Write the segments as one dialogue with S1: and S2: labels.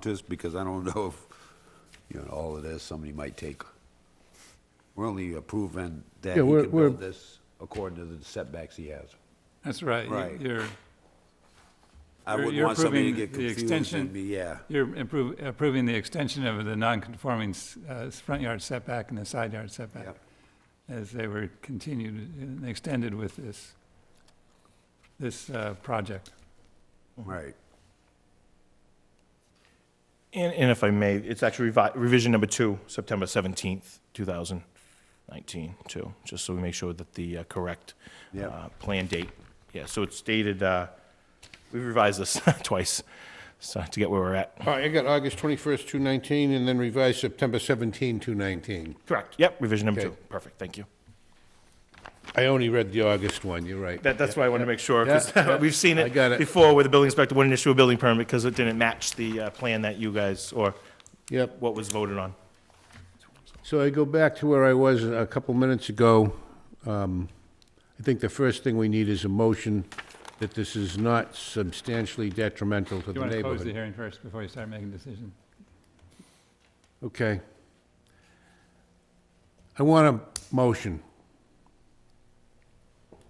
S1: just because I don't know if, you know, all of this, somebody might take. We're only approving that he
S2: Yeah, we're-
S1: can build
S2: we're-
S1: this according to the setbacks he has.
S3: That's right. You-
S1: Right.
S3: You're,
S1: I
S3: You're-
S1: wouldn't
S3: you're
S1: want somebody to
S3: approving
S1: get
S3: the
S1: confused and
S3: extension.
S1: be, yeah,
S3: you're improve- approving the extension of the non-conforming s- uh, front yard setback and the side yard setback
S1: Yep.
S3: as they were continued and extended with this, this uh, project.
S1: right.
S4: And, and if I may, it's actually revi- revision number two, September 17th, 2019, too, just so we make sure that the uh, correct
S1: Yeah.
S4: uh, plan date. Yeah, so it's dated, uh, we revised this twice, so to get where we're at.
S5: All right, I got August 21st, 219, and then revised September 17, 219.
S4: Correct, yep, revision number two.
S5: Okay.
S4: Perfect, thank you.
S5: I only read the August one, you're right.
S4: That, that's why I wanted to make sure,
S5: Yeah.
S4: because we've seen
S5: I got
S4: it
S5: it.
S4: before where the building inspector wouldn't issue a building permit because it didn't match the uh, plan that you guys, or
S5: Yep.
S4: what was voted on.
S5: So I go back to where I was a couple minutes ago. Um, I think the first thing we need is a motion that this is not substantially detrimental to
S3: You
S5: the
S3: want to close the
S5: neighborhood.
S3: hearing first before you start making a decision?
S5: Okay. I want a motion.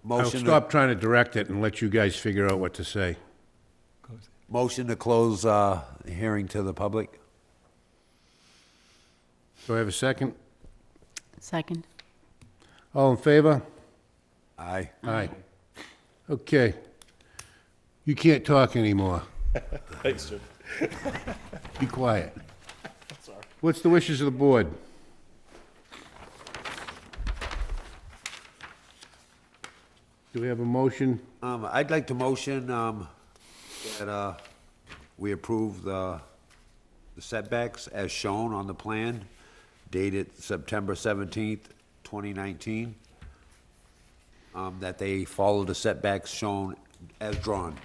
S5: I'll
S1: Motion, to-
S5: stop trying to direct it and let you guys figure out what to say.
S3: Close it.
S1: motion to close, uh, hearing to the public?
S5: Do I have a second?
S6: Second.
S5: All in favor?
S1: Aye.
S5: Aye. Okay. You can't talk anymore.
S4: Thanks, sir.
S5: Be quiet. What's the wishes of the board? Do we have a motion?
S1: Um, I'd like to motion, um, that, uh, we approve the the setbacks as shown on the plan dated September seventeenth, twenty nineteen. Um, that they follow the setbacks shown as drawn.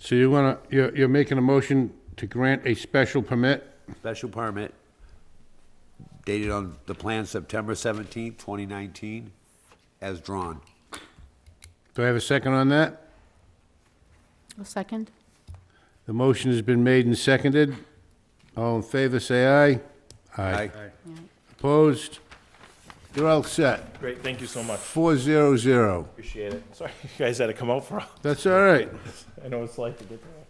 S5: So you wanna, you're, you're making a motion to grant a special permit?
S1: Special permit dated on the plan September seventeenth, twenty nineteen, as drawn.
S5: Do I have a second on that?
S6: A second?
S5: The motion has been made and seconded. All in favor, say aye. Opposed? You're all set.
S4: Great, thank you so much.
S5: Four zero zero.
S4: Appreciate it. Sorry, you guys had to come out for all.
S5: That's all right.
S4: I know it's like to get there.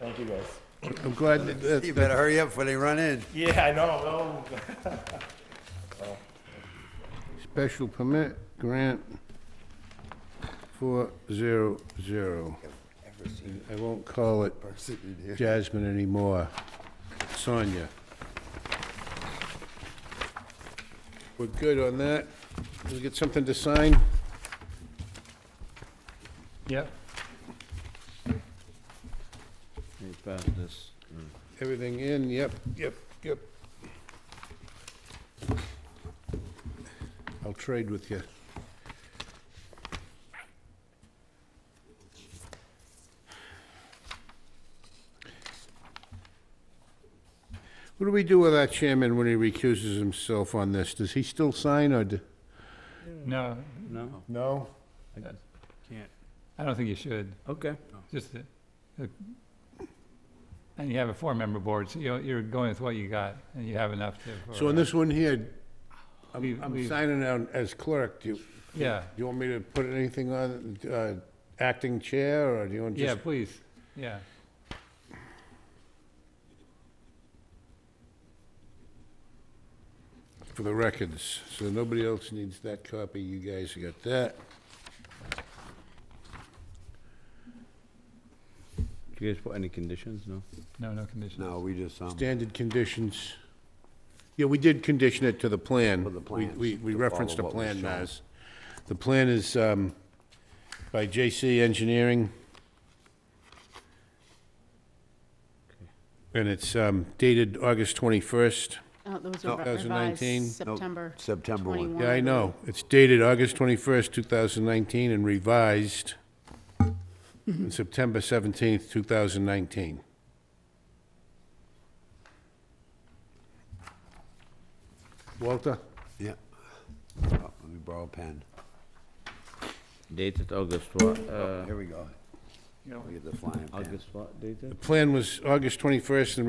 S4: Thank you, guys.
S5: I'm glad that, that-
S1: You better hurry up before they run in.
S4: Yeah, I know.
S5: Special permit, grant, four zero zero. I won't call it Jasmine anymore, Sonia. We're good on that. Did we get something to sign?
S3: Yep.
S5: Everything in, yep, yep, yep. I'll trade with you. What do we do with our chairman when he recuses himself on this? Does he still sign or? d-
S3: No,
S7: No,
S5: No.
S7: can't.
S3: I don't think you should.
S7: Okay.
S3: Just, the- the- and you have a four-member board, so you're, you're going with what you got and you have enough to. for,
S5: So on
S3: uh,
S5: this one here, I'm,
S3: We've-
S5: I'm
S3: we've-
S5: signing out as clerk. Do you,
S3: Yeah,
S5: do you want me to put anything on, uh, acting chair or do you want just?
S3: yeah, please, yeah.
S5: for the records, so nobody else needs that copy, you guys got that.
S7: Do you guys put any conditions? No?
S3: No, no conditions.
S1: No, we just, um,
S5: Standard conditions. Yeah, we did condition it to the plan.
S1: For the
S5: We- We,
S1: plans,
S5: we
S1: to
S5: referenced the
S1: follow what was
S5: plan,
S1: shown.
S5: Naz. The plan is, um, by J.C. Engineering. And it's, um, dated August twenty-first.
S6: Oh, those
S1: No,
S6: are
S5: those are 19.
S6: revised
S1: Nope,
S6: September
S1: September one.
S6: 21.
S5: Yeah, I know. It's dated August 21st, 2019, and revised on September 17th, 2019. Walter?
S1: Yeah. Oh, Let me borrow a pen.
S7: Dated August what? Uh,
S1: Here we go.
S8: you know,
S9: Look at the flying
S1: I'll
S9: pan.
S1: get spot date then?
S5: The plan was August 21st, and